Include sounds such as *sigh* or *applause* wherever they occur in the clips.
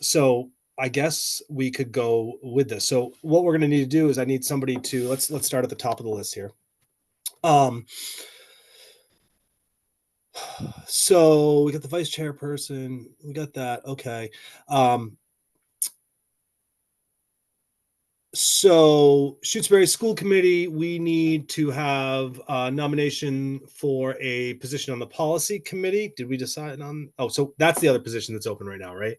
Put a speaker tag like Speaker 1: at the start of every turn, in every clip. Speaker 1: so I guess we could go with this. So what we're going to need to do is I need somebody to let's let's start at the top of the list here. Um so we got the vice chairperson, we got that. Okay. Um so Shutesbury School Committee, we need to have a nomination for a position on the policy committee. Did we decide on? Oh, so that's the other position that's open right now, right?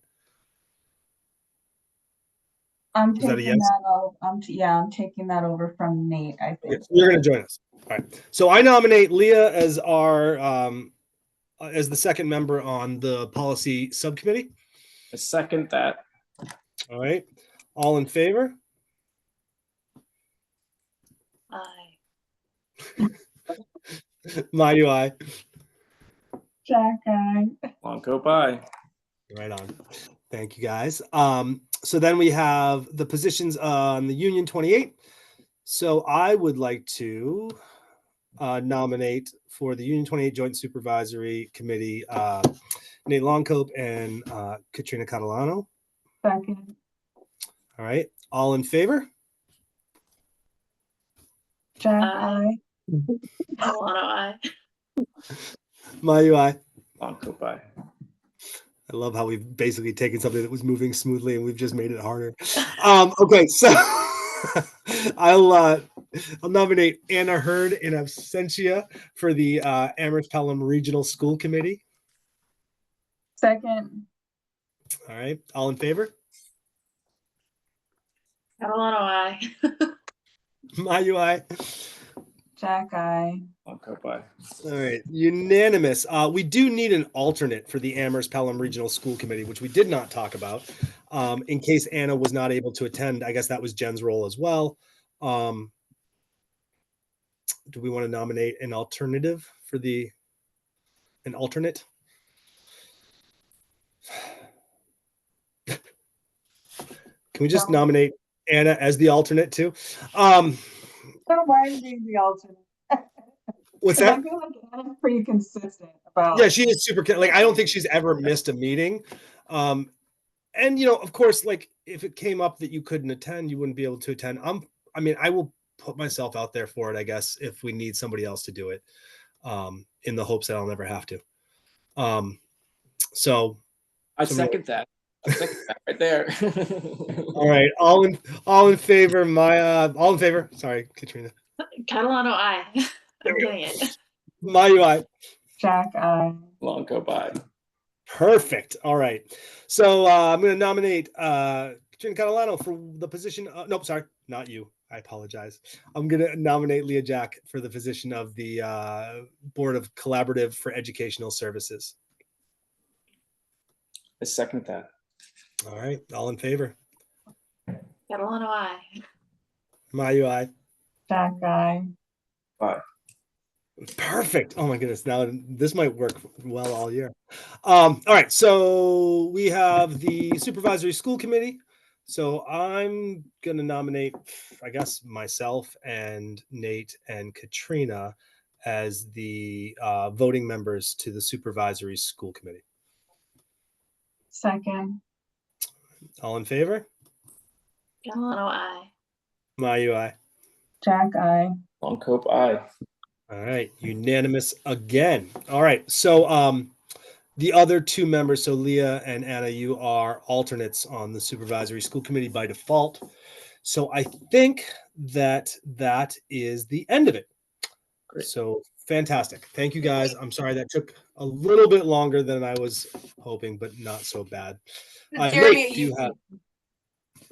Speaker 2: I'm
Speaker 1: Is that a
Speaker 2: taking
Speaker 1: yes?
Speaker 2: that, o- I'm, t- yeah, I'm taking that over from Nate, I think.
Speaker 1: Yes, you're going to join us. All right. So I nominate Leah as our um, uh, as the second member on the policy subcommittee.
Speaker 3: I second that.
Speaker 1: All right. All in favor?
Speaker 4: Aye.
Speaker 1: *laughs* My do I.
Speaker 2: Jack, I,
Speaker 3: Longo, bye.
Speaker 1: Right on. Thank you guys. Um, so then we have the positions on the Union 28. So I would like to uh, nominate for the Union 28 Joint Supervisory Committee uh, Nate Longcope and uh, Katrina Catalano.
Speaker 2: second,
Speaker 1: All right. All in favor?
Speaker 2: Jack,
Speaker 4: Aye.
Speaker 2: I,
Speaker 4: Milano, aye.
Speaker 1: My UI.
Speaker 3: Longo, bye.
Speaker 1: I love how we've basically taken something that was moving smoothly and we've just made it harder. Um, okay, so *laughs* I'll uh, I'll nominate Anna Hurd in absentia for the uh, Amherst Pelham Regional School Committee.
Speaker 2: second,
Speaker 1: All right, all in favor? *laughs*
Speaker 4: Milano, aye.
Speaker 1: My UI.
Speaker 2: Jack, I,
Speaker 3: Longo, bye.
Speaker 1: All right, unanimous. Uh, we do need an alternate for the Amherst Pelham Regional School Committee, which we did not talk about. Um, in case Anna was not able to attend, I guess that was Jen's role as well. Um, do we want to nominate an alternative for the an alternate? Can we just
Speaker 2: No.
Speaker 1: nominate Anna as the alternate too? Um,
Speaker 2: don't mind being the alternate.
Speaker 1: what's
Speaker 2: 'Cause
Speaker 1: that?
Speaker 2: I feel like Anna's pretty consistent about.
Speaker 1: yeah she is super ca- like i don't think she's ever missed a meeting um and you know of course like if it came up that you couldn't attend you wouldn't be able to attend i'm i mean i will put myself out there for it i guess if we need somebody else to do it um in the hopes that i'll never have to um so
Speaker 3: I
Speaker 1: Somebody-
Speaker 3: second that. I second that right there. *laughs*
Speaker 1: all right all in all in favor my uh all in favor sorry katrina
Speaker 4: Catalano, aye.
Speaker 1: There
Speaker 4: I'm
Speaker 1: we go.
Speaker 4: doing it.
Speaker 1: my ui
Speaker 2: Jack, I,
Speaker 3: Longo, bye.
Speaker 1: Perfect. All right. So uh, I'm going to nominate uh, Katrina Catalano for the position. Uh, nope, sorry, not you. I apologize. I'm going to nominate Leah Jack for the position of the uh, Board of Collaborative for Educational Services.
Speaker 3: I second that.
Speaker 1: All right. All in favor?
Speaker 4: Catalano, aye.
Speaker 1: My UI.
Speaker 2: Jack, I,
Speaker 1: Perfect. Oh my goodness. Now this might work well all year. Um, all right. So we have the supervisory school committee. So I'm going to nominate, I guess, myself and Nate and Katrina as the uh, voting members to the supervisory school committee.
Speaker 2: second,
Speaker 1: All in favor?
Speaker 4: Catalano, aye.
Speaker 1: My UI.
Speaker 2: Jack, I,
Speaker 3: Longo, bye.
Speaker 1: All right, unanimous again. All right, so um, the other two members, so Leah and Anna, you are alternates on the supervisory school committee by default. So I think that that is the end of it.
Speaker 3: Great.
Speaker 1: So fantastic. Thank you guys. I'm sorry that took a little bit longer than I was hoping, but not so bad. Uh, Nate,
Speaker 5: Jeremy,
Speaker 1: do you
Speaker 5: you,
Speaker 1: have-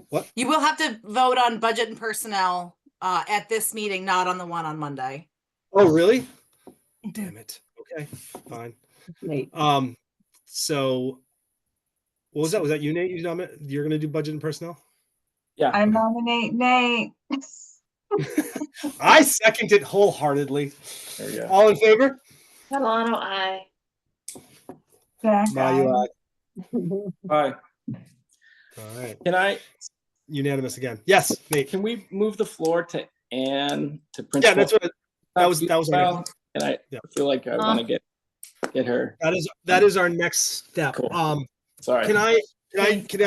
Speaker 1: What?
Speaker 5: you will have to vote on budget and personnel uh, at this meeting, not on the one on Monday.
Speaker 1: Oh, really? Damn it. Okay, fine. Um, so what was that? Was that you, Nate? You nomi- You're gonna do budget and personnel?
Speaker 3: Yeah,
Speaker 2: I nominate Nate. *laughs*
Speaker 1: I second it wholeheartedly.
Speaker 3: There we go.
Speaker 1: All in favor?
Speaker 4: Catalano, aye.
Speaker 2: Jack,
Speaker 1: My
Speaker 2: I,
Speaker 1: UI.
Speaker 3: bye.
Speaker 1: All right,
Speaker 3: Can I,
Speaker 1: unanimous again. Yes, Nate.
Speaker 3: can we move the floor to Anne to principal?
Speaker 1: Yeah, that's what, that was- that was my-
Speaker 3: Well, And I
Speaker 1: Yeah.
Speaker 3: feel like I want to get, get her.
Speaker 1: that is, that is our next step.
Speaker 3: Cool.
Speaker 1: Um,
Speaker 3: Sorry.
Speaker 1: can I, can I, can I